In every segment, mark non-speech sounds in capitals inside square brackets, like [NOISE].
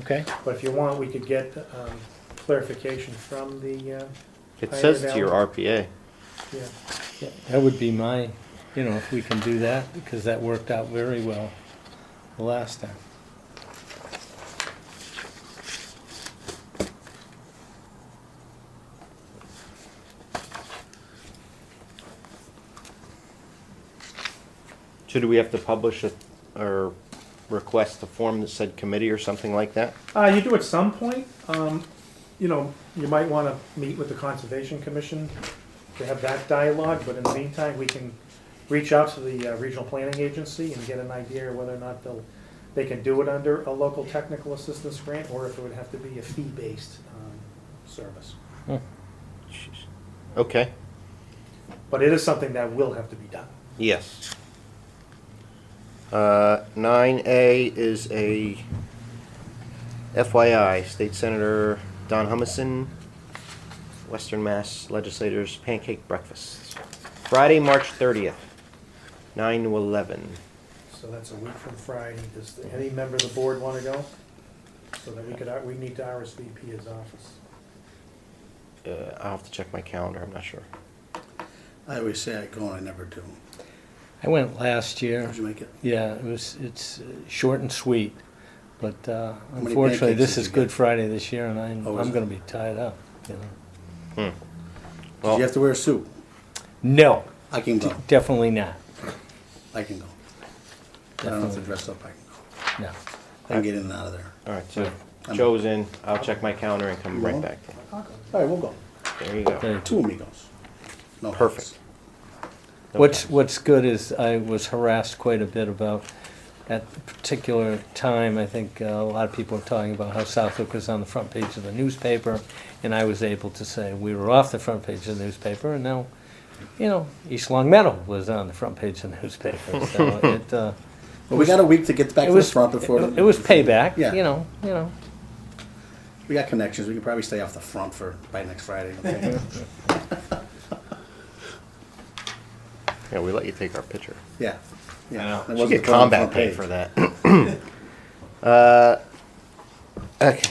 Okay, But if you want, we could get um, clarification from the, uh, It Pioneer says to your Valley. RPA. yeah. yeah, that would be my, you know, if we can do that, because that worked out very well the last time. Should we have to publish a, or request a form that said committee or something like that? Uh, you do at some point, um, you know, you might wanna meet with the Conservation Commission to have that dialogue, but in the meantime, we can reach out to the uh, Regional Planning Agency and get an idea whether or not they'll, they can do it under a local technical assistance grant, or if it would have to be a fee-based, um, service. Okay, But it is something that will have to be done. yes. Uh, nine A is a FYI, State Senator Don Humison, Western Mass Legislators Pancake Breakfast. Friday, March thirtieth, nine to eleven. So that's a week from Friday. Does any member of the board wanna go? So that we could, uh, we need to RSVP his office. Uh, I'll have to check my calendar, I'm not sure. I always say I go and I never do. I went last year, Did you make it? yeah, it was, it's uh, short and sweet, but uh, many unfortunately, pancakes this did is you Good get? Friday this year, and I'm, Oh, is I'm it? gonna be tied up, you know. Did you have to wear a suit? No, I can go. definitely not, I can go. I don't have to dress up. I can go. no. I can get in and out of there. All right, so Joe's in, I'll check my calendar and come right back. to you. All right, we'll go. There you go. Very Two amigos. No Perfect. thanks. What's, what's good is I was harassed quite a bit about, at a particular time, I think uh, a lot of people were talking about how Southwick was on the front page of the newspaper, and I was able to say we were off the front page of the newspaper, and now, you know, East Long Meadow was on the front page of the [LAUGHS] newspaper, so it, uh, But we got a week to get back it to the was, front before. it was payback, Yeah. you know, you know. We got connections. We can probably stay off the front for by next Friday. okay? Yeah, we let you take our picture. yeah. Yeah. That Should wasn't get put on the combat front pay page. for that. Uh, Okay.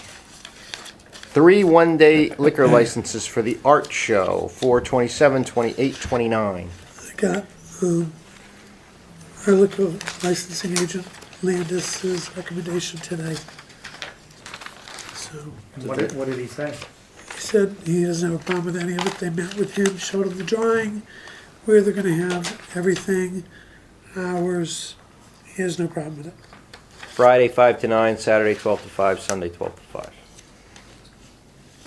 Three one-day liquor licenses for the art show, four twenty-seven, twenty-eight, twenty-nine. got um, our liquor licensing agent Landis's recommendation tonight. So What did, what did he say? he said he doesn't have a problem with any of it. They met with him, showed him the drawing, where they're gonna have everything, hours. He has no problem with it. Friday, five to nine, Saturday, twelve to five, Sunday, twelve to five.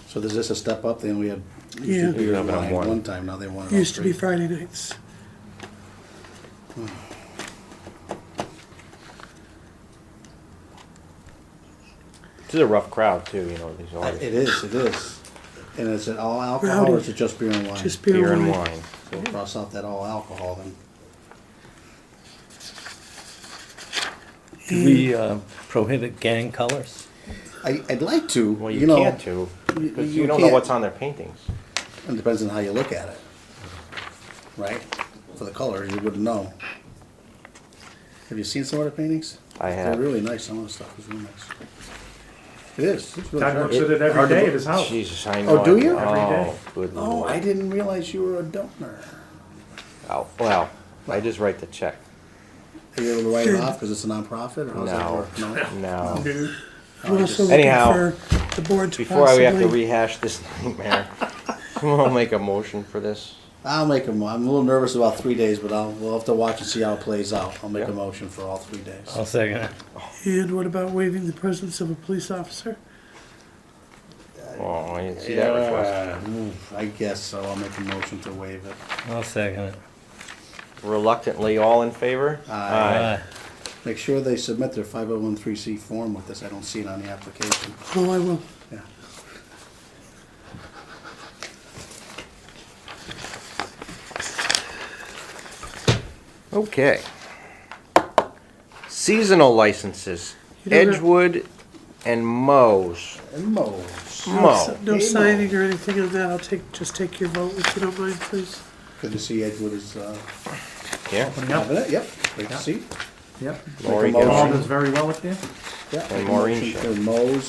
So is this a step up? Then we had Yeah. used to We do have it on wine one. one time. Now they want Oh, it on Used to be three. Friday nights. This is a rough crowd too, you know, these Uh, artists. It is. It is. And is it all alcohol Rowdy. or is it just beer and wine? Just beer, Beer and wine. So we'll cross out that all alcohol then. Do we uh, prohibit gang colors? I, I'd like to. Well, you, you know, can't too, because you you don't know can't. what's on their paintings. It depends on how you look at it, right? For the color, you wouldn't know. Have you seen some of the paintings? I have. They're really nice. Some of the stuff is really nice. It is. It's really Doug sharp. looks at it every hard to day be- at his house. Jesus, I know. Oh, do I- you? Every day. Oh, good Oh, I lord. didn't realize you were a donor. Oh, Well, I just write the check. Are you able to write it off because it's a nonprofit or how's that No. work? No. [LAUGHS] No. I'm also looking Anyhow, for the board to Before we have to possibly. rehash this [LAUGHS] nightmare, I'll make a motion for this. I'll make a mo- I'm a little nervous about three days, but I'll, we'll have to watch and see how it plays out. I'll make a Yeah. motion for all three days. I'll second it. And what about waiving the presence of a police officer? Oh, I didn't see that request. Yeah, oof, I guess so. I'll make a motion to waive it. I'll second it. Reluctantly, all in favor? Aye. Make sure they submit their 5013C form with this. I don't see it on the application. Oh, I will. Yeah. Okay. Seasonal licenses, You don't have- Edgewood and Mo's. And Mo's. No Mo. si- No Hey, Mo. signing or anything on that, I'll take, just take your vote if you don't mind, please. Good to see Edgewood is uh, Yeah. having it. Yep. Great to see. Yep. Lori Make a Gibson. All motion. does very well with you. Yeah. And Maureen Mo's